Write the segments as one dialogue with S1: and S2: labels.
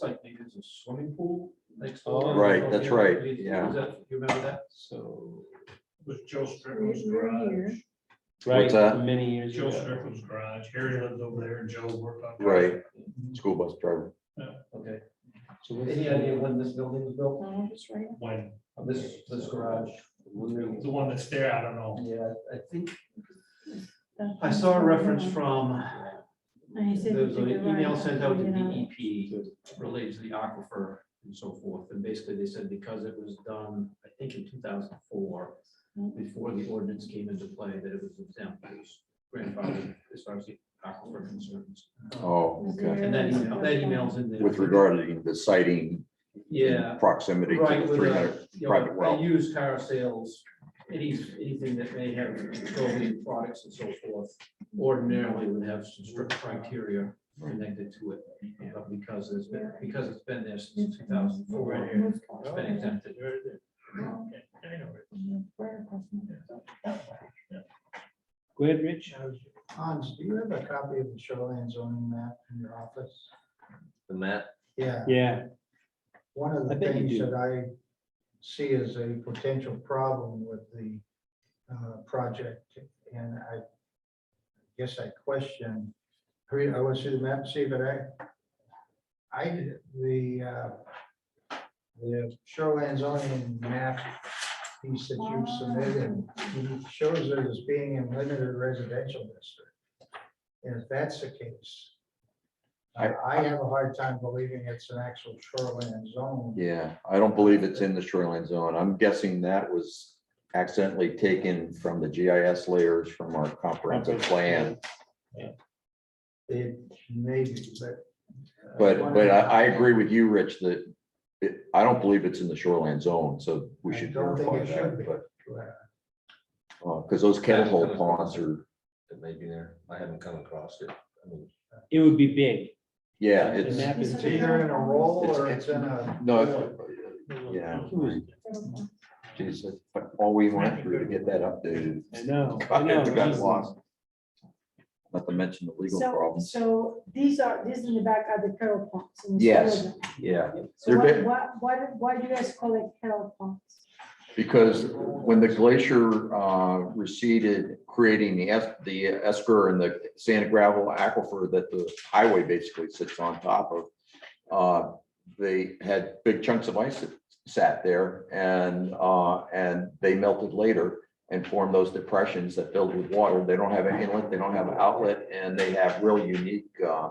S1: site they use a swimming pool next
S2: Oh,
S1: door.
S3: Right, that's right,
S1: Is
S3: yeah.
S1: that- You remember that?
S2: So,
S4: was Joe Strickland's
S5: We're
S4: garage.
S5: here.
S2: right,
S3: What's that?
S2: many years
S4: Joe
S2: ago.
S4: Strickland's garage. Harry lives over there and Joe worked on.
S3: Right. school bus driver.
S1: Okay,
S2: So what's
S1: any
S2: the-
S1: idea when this building was built,
S5: No, it's right.
S4: When,
S1: this, this garage?
S4: the one that's there, I don't know.
S1: Yeah, I think,
S5: The-
S1: I saw a reference from,
S5: I said
S1: there's
S5: to
S1: an
S5: the
S1: email
S5: right,
S1: sent out to E
S5: you know.
S1: DEP related to the aquifer and so forth, and basically they said because it was done, I think in two thousand four,
S5: Mm-hmm.
S1: before the ordinance came into play, that it was exempt, it was grandfathered as far as the aquifer concerns.
S3: Oh, okay.
S1: And that email, that email's in there.
S3: With regard to the sighting.
S1: Yeah.
S3: Proximity to
S1: Right,
S3: the
S1: with,
S3: three
S1: uh,
S3: hundred,
S1: you
S3: private
S1: know,
S3: well.
S1: they use car sales, any, anything that may have petroleum products and so forth, ordinarily would have some strict criteria connected to it. But because it's been, because it's been there since two thousand
S4: Right
S1: four,
S4: here.
S1: it's been exempted.
S6: Oh.
S4: I know it.
S2: Go ahead, Rich.
S6: Hans, do you have a copy of the shoreline zoning map in your office?
S3: The map.
S6: Yeah,
S2: Yeah,
S6: one of
S2: I
S6: the
S2: bet you
S6: things
S2: do.
S6: that I see as a potential problem with the uh, project, and I guess I question, I mean, I went through the map, see, but I, I, did- the, uh, the shoreline zoning map piece that you submitted shows it as being in limited residential district. And if that's the case, I, I have a hard time believing it's an actual shoreline zone.
S3: Yeah, I don't believe it's in the shoreline zone. I'm guessing that was accidentally taken from the GIS layers from our comprehensive plan.
S6: It may be, but. uh, I
S3: But,
S6: wonder-
S3: but I, I agree with you, Rich, that it, I don't believe it's in the shoreline zone, so we
S6: I
S3: should
S6: don't think
S3: verify
S6: it should be.
S3: that, but, uh, cause those kettle hole ponds are,
S7: that may be there. I haven't come across it. I mean,
S2: it would be big.
S3: yeah,
S2: The
S3: it's,
S2: map is
S6: It's
S2: big.
S6: either in a roll or
S3: It's-
S6: it's in a.
S3: no, it's- yeah. Geez, but all we went through to get that updated.
S2: I know, I
S3: God,
S2: know.
S3: it got
S2: Jesus.
S3: lost. Not to mention the legal
S5: So,
S3: problems.
S5: so these are, these in the back are the kettle pumps. and the
S3: Yes.
S5: solar.
S3: Yeah,
S5: So
S3: They're
S5: what,
S3: bit-
S5: what, what- why do you guys call it kettle pumps?
S3: because when the glacier uh, receded, creating the es- the esker and the sand and gravel aquifer that the highway basically sits on top of, uh, they had big chunks of ice that sat there and, uh, and they melted later and formed those depressions that filled with water. They don't have an inlet, they don't have an outlet, and they have real unique uh,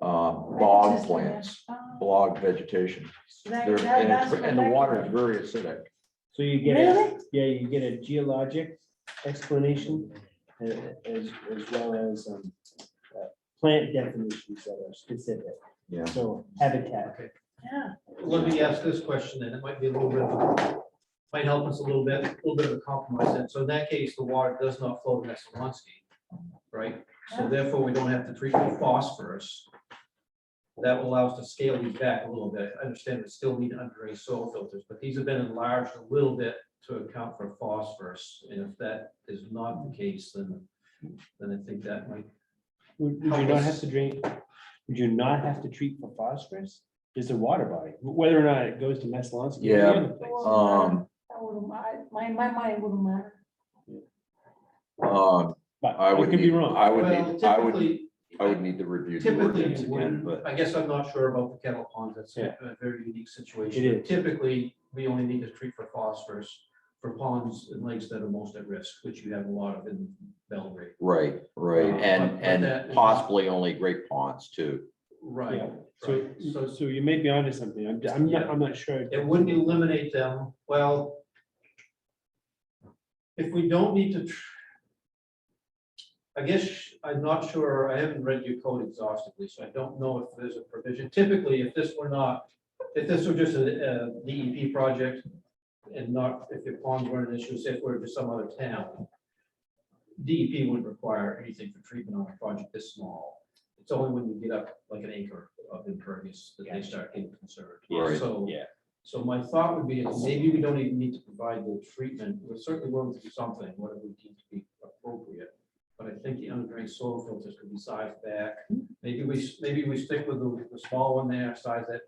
S3: uh, bog plants,
S5: Ah,
S3: bog vegetation.
S5: that-
S3: They're-
S5: that-
S3: And
S5: that's
S3: it's-
S5: what
S3: and the
S5: that-
S3: water is very acidic.
S2: So you get, a yeah, you get a geologic explanation a- as, as well as um, uh, plant definitions that are specific.
S3: Yeah.
S2: So habitat.
S5: Yeah,
S1: Let me ask this question, and it might be a little bit, of a- might help us a little bit, a little bit of a compromise, and so in that case, the water does not flow to Messawansky, right? So therefore, we don't have to treat the phosphorus. That will allow us to scale these back a little bit, I understand we still need underground soil filters, but these have been enlarged a little bit to account for phosphorus, and if that is not the case, then, then I think that might,
S2: Would would you not have to drink, would you not have to treat for phosphorus? Is a water body, whether or not it goes to Meslansky. or the
S3: Yeah.
S2: other place.
S3: Um,
S5: that wouldn't, I- my, my mind wouldn't matter.
S3: Um,
S2: But
S3: I would
S2: could be
S3: need,
S2: wrong.
S3: I would
S1: well,
S3: need, I would,
S1: typically,
S3: I would need to review the
S1: Typically,
S3: ordinance
S1: you wouldn't.
S3: again, but
S1: I guess I'm not sure about the kettle ponds. That's a
S2: Yeah.
S1: a very unique
S2: It
S1: situation.
S2: is.
S1: Typically, we only need to treat for phosphorus for ponds and lakes that are most at risk, which you have a lot of in Belgrade.
S3: right, right,
S1: Uh, but-
S3: and,
S1: but
S3: and
S1: that-
S3: possibly only great ponds too.
S1: Right.
S2: Yeah, So,
S1: right.
S2: so so you may be onto something. I'm, I'm not,
S1: Yeah.
S2: I'm not sure.
S1: It wouldn't eliminate them. Well, if we don't need to tr- I guess I'm not sure. I haven't read your code exhaustively, so I don't know if there's a provision. Typically, if this were not, if this were just a uh, DEP project and not, if your ponds weren't an issue, say if we're just some other town, DEP wouldn't require anything for treatment on a project this small. It's only when you get up like an acre of impervious that they start getting concerned.
S3: Right.
S1: So
S2: Yeah.
S1: so my thought would be, is maybe we don't even need to provide the treatment, we're certainly willing to do something, whatever we deem to be appropriate. But I think the underground soil filters could be sized back, maybe we, s- maybe we stick with the, the small one there, size that